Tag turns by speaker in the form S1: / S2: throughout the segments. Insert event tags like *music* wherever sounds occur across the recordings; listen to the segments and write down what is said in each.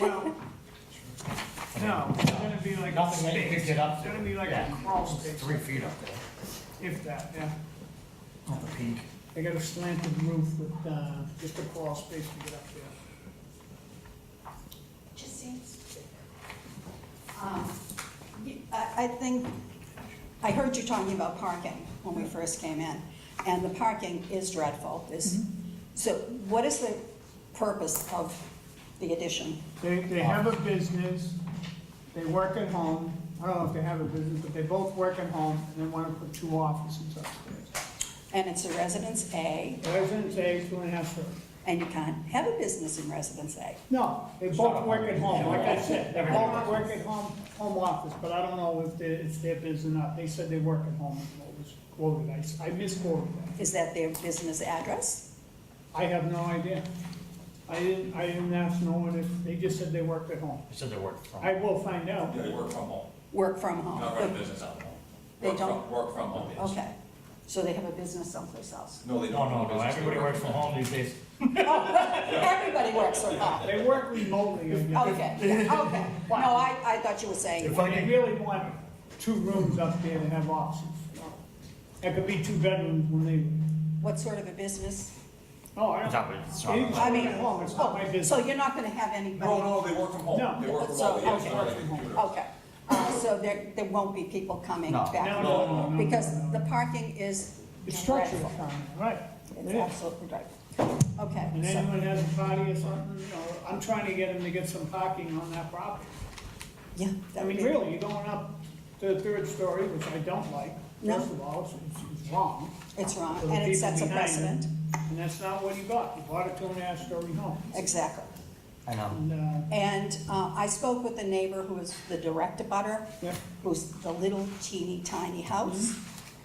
S1: Well, no, it's gonna be like a
S2: Nothing that you could
S1: space,
S2: get up
S1: it's
S2: to.
S1: gonna be like a
S2: Yeah.
S1: crawl
S2: It's
S1: space,
S2: three feet up there,
S1: if that, yeah.
S2: on the peak.
S1: They got a slanted roof with, uh, just a crawl space to get up there.
S3: Just seems. Um, you- I, I think, I heard you talking about parking when we first came in, and the parking is dreadful, is, so what is the purpose of the addition?
S1: They, they have a business, they work at home, I don't know if they have a business, but they both work at home, and they wanna put two offices upstairs.
S3: And it's a residence A,
S1: Residence A, two and a half story.
S3: and you can't have a business in residence A.
S1: No, they both work at home, like I said, they both work at home, home office, but I don't know if they, if they're busy or not, they said they work at home, is what was quoted, I, s- I misquoted that.
S3: Is that their business address?
S1: I have no idea. I didn't, I didn't ask no one if, they just said they worked at home.
S2: It said they worked from.
S1: I will find out.
S4: They work from home,
S3: Work from home?
S4: not run a business out of home.
S3: They
S4: Work from-
S3: don't?
S4: Work from home, yes.
S3: Okay, so they have a business someplace else.
S4: No, they
S2: Oh, No,
S4: don't.
S2: no, no,
S4: run a business, they
S2: everybody
S4: work
S2: works from home these days.
S3: Everybody works from home.
S1: They work remotely, I guess.
S3: Okay, yeah, okay. No, I, I thought you were saying,
S2: If I
S1: They
S2: can,
S1: really want two rooms up there to have offices. That could be two bedrooms when they,
S3: what sort of a business?
S1: oh, I
S2: it's
S1: don't.
S2: not, it's
S1: They
S2: not.
S1: work
S3: I mean,
S1: at home, it's not my
S3: oh, so
S1: business.
S3: you're not gonna have anybody?
S4: No, no, they work from
S1: No.
S4: home, they work from
S3: So,
S4: home, yes,
S3: okay.
S4: not like a computer.
S3: Okay, Uh, so there, there won't be people coming
S2: No.
S3: back?
S1: No, no, no, no, no.
S3: Because the parking is
S1: It's structured,
S3: dreadful.
S1: right.
S3: It's
S1: It is.
S3: absolutely dreadful. Okay,
S1: And
S3: so,
S1: anyone has a party or something, you know, I'm trying to get them to get some parking on that property.
S3: yeah.
S1: I
S3: that would
S1: mean,
S3: be-
S1: really, you're going up to the third story, which I don't like.
S3: No.
S1: First of all, it's- it's, it's wrong.
S3: It's wrong,
S1: for the
S3: and it
S1: people
S3: sets a
S1: behind you.
S3: precedent.
S1: And that's not what he got. He bought a two and a half story home.
S3: Exactly.
S2: I know.
S1: And, uh,
S3: And uh, I spoke with a neighbor who is the direct abutter,
S1: Yeah.
S3: who's the little teeny tiny house.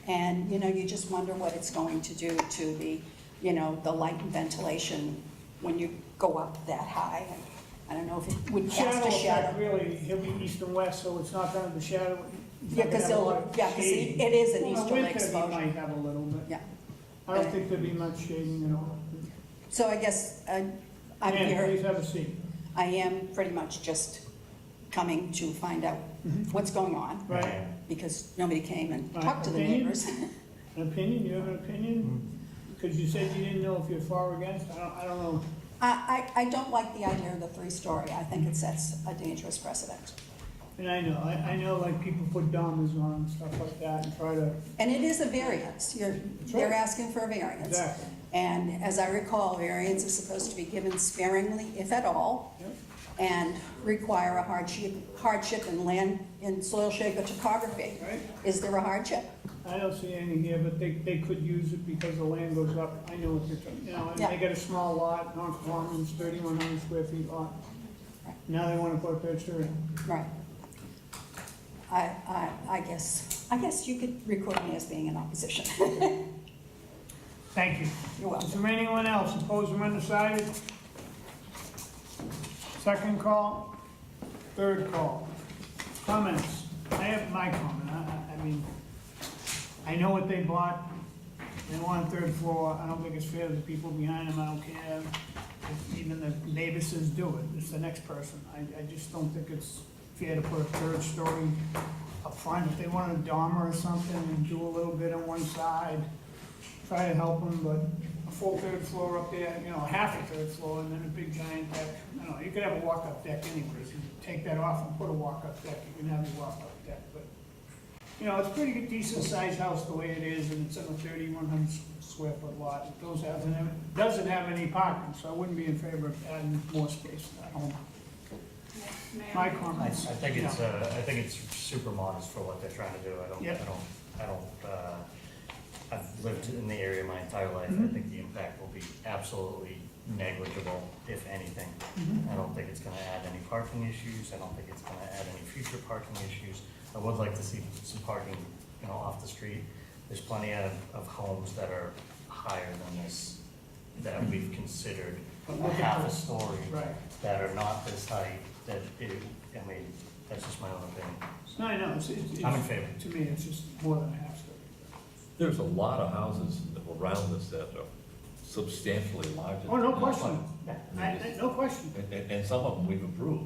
S3: And, you know, you just wonder what it's going to do to the, you know, the light and ventilation when you go up that high. And I don't know if it would cast
S1: shadow
S3: a
S1: effect,
S3: shadow.
S1: really, he'll be east and west, so it's not gonna be shadow. it's not
S3: Yeah,
S1: gonna
S3: because
S1: have a lot
S3: it'll,
S1: of
S3: yeah, because
S1: shading.
S3: it is an
S1: Well, in
S3: easterly
S1: winter, he
S3: exposure.
S1: might have a little, but
S3: Yeah.
S1: I don't think there'd be much shading at all.
S3: So I guess uh, I'm
S1: Ann,
S3: here,
S1: please have a seat.
S3: I am pretty much just coming to find out what's going on,
S1: Right,
S3: because nobody came and
S1: Right,
S3: talked to the
S1: opinion?
S3: neighbors.
S1: an opinion, you have an opinion? Because you said you didn't know if you're for or against, I don't, I don't know.
S3: I, I, I don't like the idea of the three-story. I think it sets a dangerous precedent.
S1: And I know, I, I know like people put dormers on and stuff like that and try to,
S3: And it is a variance. You're, they're asking for a variance.
S1: Exactly.
S3: And as I recall, variance is supposed to be given sparingly, if at all,
S1: Yep.
S3: and require a hardship, hardship in land, in soil shape or topography.
S1: Right.
S3: Is there a hardship?
S1: I don't see any here, but they, they could use it because the land goes up, I know what you're talking, you know, and
S3: Yeah.
S1: they got a small lot, non-conforming, thirty-one hundred square feet lot.
S3: Right.
S1: Now they wanna put a third story in.
S3: Right. I, I, I guess, I guess you could record me as being in opposition. *laughs*
S1: Thank you.
S3: You're welcome.
S1: Is there anyone else opposed or undecided? Second call, third call. Comments? I have my comment, I, I- I mean, I know what they bought, they want a third floor, I don't think it's fair to the people behind them, I don't care. if Even the neighbor says do it, it's the next person, I, I just don't think it's fair to put a third story up front. If they want a dormer or something, and do a little bit on one side, try to help them, but a full third floor up there, you know, half a third floor, and then a big giant deck. I don't know, you could have a walk-up deck anyways, you take that off and put a walk-up deck, you can have a walk-up deck, but, you know, it's a pretty decent-sized house the way it is, and it's in a thirty-one hundred square foot lot, it does have, it doesn't have any parking, so I wouldn't be in favor of adding more space to that home. My
S2: I, I
S1: comments.
S2: think it's, uh, I think it's super modest for what they're trying to do. I don't,
S1: Yep.
S2: I don't, I don't, uh, I've lived in the area my entire life. I
S1: Mm-hmm.
S2: think the impact will be absolutely negligible, if anything.
S1: Mm-hmm.
S2: I don't think it's gonna add any parking issues. I don't think it's gonna add any future parking issues. I would like to see some parking, you know, off the street. There's plenty of, of homes that are higher than this, that we've considered
S1: But look at
S2: half a
S1: this.
S2: story
S1: Right.
S2: that are not this height, that it, I mean, that's just my own opinion.
S1: No, I know, it's, it's.
S2: I'm in favor.
S1: To me, it's just more than a half story.
S5: There's a lot of houses around us that are substantially larger.
S1: Oh, no
S5: than that
S1: question.
S5: one.
S1: I- I- no question.
S5: And, and- and some of them we've approved.